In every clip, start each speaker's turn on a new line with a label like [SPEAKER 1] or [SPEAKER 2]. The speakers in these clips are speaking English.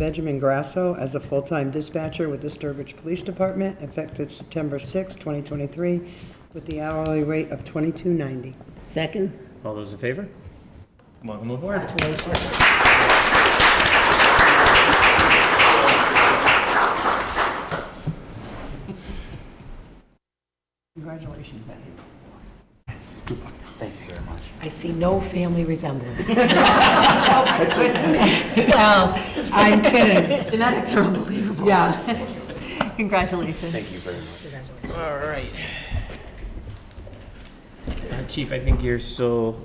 [SPEAKER 1] Benjamin Grasso as a full-time dispatcher with the Sturbridge Police Department effective September 6, 2023, with the hourly rate of $22.90.
[SPEAKER 2] Second?
[SPEAKER 3] All those in favor? Welcome aboard.
[SPEAKER 1] Congratulations, Ben.
[SPEAKER 2] I see no family resemblance. No, I'm kidding. Genetics are unbelievable. Yes. Congratulations.
[SPEAKER 3] Thank you very much. All right. Uh, Chief, I think you're still,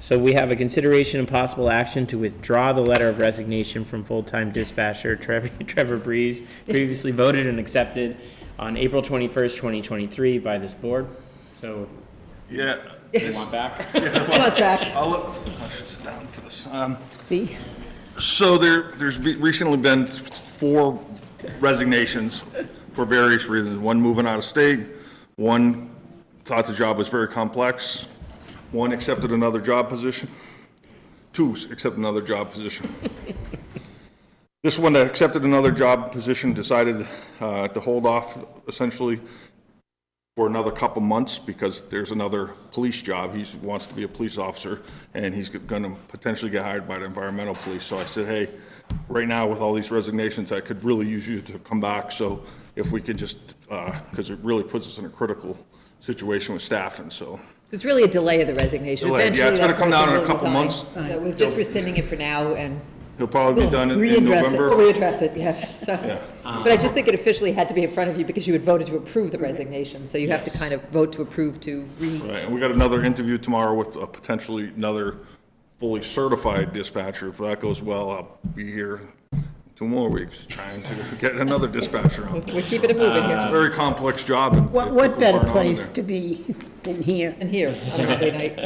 [SPEAKER 3] so we have a consideration and possible action to withdraw the letter of resignation from full-time dispatcher Trevor Trevor Breeze, previously voted and accepted on April 21st, 2023 by this board. So
[SPEAKER 4] Yeah,
[SPEAKER 3] you want back?
[SPEAKER 4] I'll, look- I should sit down for this. Um,
[SPEAKER 2] See?
[SPEAKER 4] So there, there's be- recently been four resignations for various reasons. One moving out of state, one thought the job was very complex, one accepted another job position, two accepted another job position. This one that accepted another job position decided uh, to hold off essentially for another couple months because there's another police job. He wants to be a police officer and he's going to potentially get hired by the environmental police. So I said, hey, right now with all these resignations, I could really use you to come back. So if we could just, because it really puts us in a critical situation with staffing, so.
[SPEAKER 5] It's really a delay of the resignation.
[SPEAKER 4] Delay, yeah,
[SPEAKER 5] Eventually,
[SPEAKER 4] it's
[SPEAKER 5] that
[SPEAKER 4] gonna come down
[SPEAKER 5] person
[SPEAKER 4] in a
[SPEAKER 5] will
[SPEAKER 4] couple
[SPEAKER 5] resign.
[SPEAKER 4] months.
[SPEAKER 5] So we're just rescinding it for now and
[SPEAKER 4] He'll probably be done in in
[SPEAKER 5] readdress it,
[SPEAKER 4] November.
[SPEAKER 5] we'll readdress it, yeah. So- But I just think it officially had to be in front of you because you had voted to approve the resignation, so you have to kind of vote to approve to re,
[SPEAKER 4] Right, and we got another interview tomorrow with a potentially another fully certified dispatcher. If that goes well, I'll be here two more weeks trying to get another dispatcher on.
[SPEAKER 5] we're keeping it moving
[SPEAKER 4] It's a
[SPEAKER 5] here
[SPEAKER 4] very complex job. and
[SPEAKER 2] What,
[SPEAKER 4] people
[SPEAKER 2] what better
[SPEAKER 4] aren't on
[SPEAKER 2] place
[SPEAKER 4] there.
[SPEAKER 2] to be than here?
[SPEAKER 5] and here on a Monday night,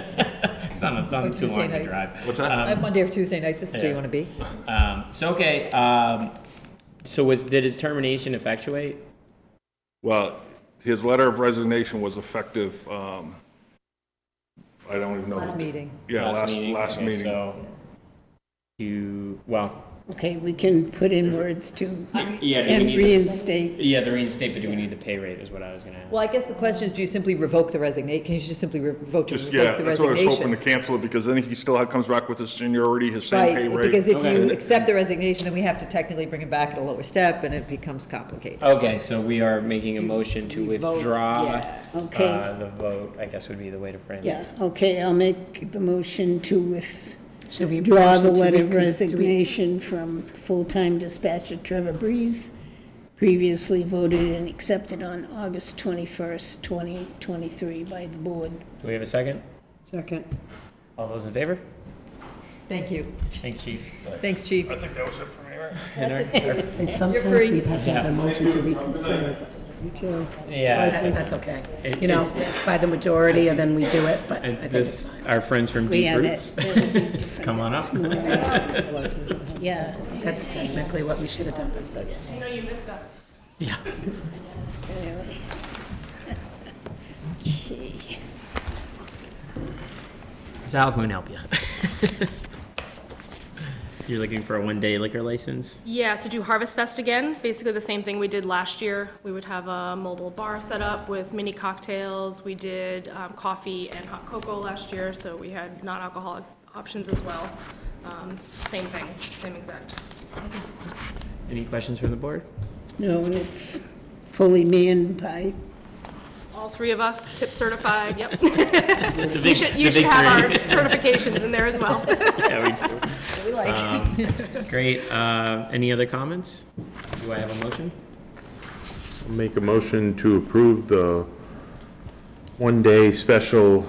[SPEAKER 3] It's not a- not too
[SPEAKER 5] Tuesday
[SPEAKER 3] long to
[SPEAKER 5] night.
[SPEAKER 3] drive.
[SPEAKER 4] What's that?
[SPEAKER 5] on Monday or Tuesday night, this is where
[SPEAKER 3] Yeah.
[SPEAKER 5] you want to be.
[SPEAKER 3] Um, So, okay, um, so was, did his termination effectuate?
[SPEAKER 4] Well, his letter of resignation was effective, um, I don't even know.
[SPEAKER 5] Last meeting.
[SPEAKER 4] Yeah, last, last
[SPEAKER 3] okay,
[SPEAKER 4] meeting.
[SPEAKER 3] So you, well,
[SPEAKER 2] Okay, we can put in words to,
[SPEAKER 3] yeah, do we
[SPEAKER 2] and
[SPEAKER 3] need-
[SPEAKER 2] reinstate.
[SPEAKER 3] yeah, the reinstate, but do we need the pay rate is what I was gonna ask.
[SPEAKER 5] Well, I guess the question is, do you simply revoke the resignation? Can you just simply re- vote to
[SPEAKER 4] Just, yeah,
[SPEAKER 5] revoke the
[SPEAKER 4] that's what I was hoping to
[SPEAKER 5] resignation?
[SPEAKER 4] cancel it because then he still had- comes back with his seniority, his same pay
[SPEAKER 5] Right,
[SPEAKER 4] rate.
[SPEAKER 5] because if
[SPEAKER 3] Okay.
[SPEAKER 5] you accept the resignation, then we have to technically bring it back at a lower step, and it becomes complicated.
[SPEAKER 3] Okay, so we are making a motion to
[SPEAKER 2] we vote?
[SPEAKER 3] withdraw.
[SPEAKER 5] Yeah.
[SPEAKER 2] Okay.
[SPEAKER 3] uh, The vote, I guess would be the way to frame
[SPEAKER 2] yeah,
[SPEAKER 3] it.
[SPEAKER 2] okay, I'll make the motion to
[SPEAKER 6] Should we
[SPEAKER 2] withdraw
[SPEAKER 6] motion
[SPEAKER 2] the
[SPEAKER 6] to
[SPEAKER 2] letter of
[SPEAKER 6] recons- do we-
[SPEAKER 2] resignation from full-time dispatcher Trevor Breeze, previously voted and accepted on August 21st, 2023 by the board.
[SPEAKER 3] Do we have a second?
[SPEAKER 1] Second.
[SPEAKER 3] All those in favor?
[SPEAKER 5] Thank you.
[SPEAKER 3] Thanks, chief.
[SPEAKER 5] Thanks, Chief.
[SPEAKER 4] I think that was it for me, right?
[SPEAKER 3] And our-
[SPEAKER 6] It's sometimes
[SPEAKER 5] free.
[SPEAKER 6] we've had to have a motion to reconsider.
[SPEAKER 1] You too.
[SPEAKER 3] Yeah,
[SPEAKER 6] That's that's okay.
[SPEAKER 3] It-
[SPEAKER 6] You know, by the majority, and then we do it, but I
[SPEAKER 3] and
[SPEAKER 6] think it's
[SPEAKER 3] this, our friends from
[SPEAKER 2] We
[SPEAKER 3] Deep
[SPEAKER 2] have
[SPEAKER 3] Roots.
[SPEAKER 2] it. That'll be different.
[SPEAKER 3] Come on up.
[SPEAKER 2] Yeah.
[SPEAKER 6] that's technically what we should have done, so yes.
[SPEAKER 7] I know you missed us.
[SPEAKER 2] Okay.
[SPEAKER 3] So how can we help you? You're looking for a one-day liquor license?
[SPEAKER 7] Yeah, to do Harvest Fest again, basically the same thing we did last year. We would have a mobile bar set up with mini cocktails. We did um, coffee and hot cocoa last year, so we had non-alcoholic options as well. Um, Same thing, same exact.
[SPEAKER 3] Any questions from the board?
[SPEAKER 2] No, and it's fully manned by,
[SPEAKER 7] All three of us, tip certified, yep.
[SPEAKER 3] The
[SPEAKER 7] You
[SPEAKER 3] big-
[SPEAKER 7] should,
[SPEAKER 3] the
[SPEAKER 7] you should
[SPEAKER 3] big
[SPEAKER 7] have our
[SPEAKER 3] three.
[SPEAKER 7] certifications in there as well.
[SPEAKER 3] Yeah, we do. Great. Uh, Any other comments? Do I have a motion?
[SPEAKER 8] Make a motion to approve the one-day special,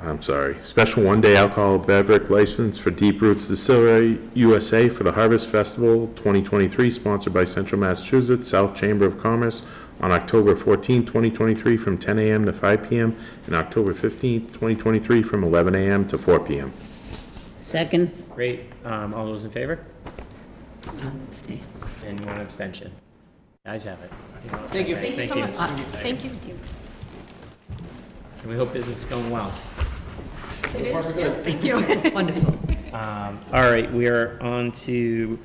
[SPEAKER 8] I'm sorry, special one-day alcohol beverage license for Deep Roots Distillery USA for the Harvest Festival 2023, sponsored by Central Massachusetts South Chamber of Commerce on October 14, 2023, from 10 a.m. to 5 p.m., and October 15, 2023, from 11 a.m. to 4 p.m.
[SPEAKER 2] second,
[SPEAKER 3] Great. Um, All those in favor? And one abstention. Guys have it. Thank you.
[SPEAKER 7] Thank you so much. Thank you.
[SPEAKER 3] And we hope business is going well.
[SPEAKER 7] It is, yes, thank you.
[SPEAKER 5] Wonderful.
[SPEAKER 3] Um, All right, we are on to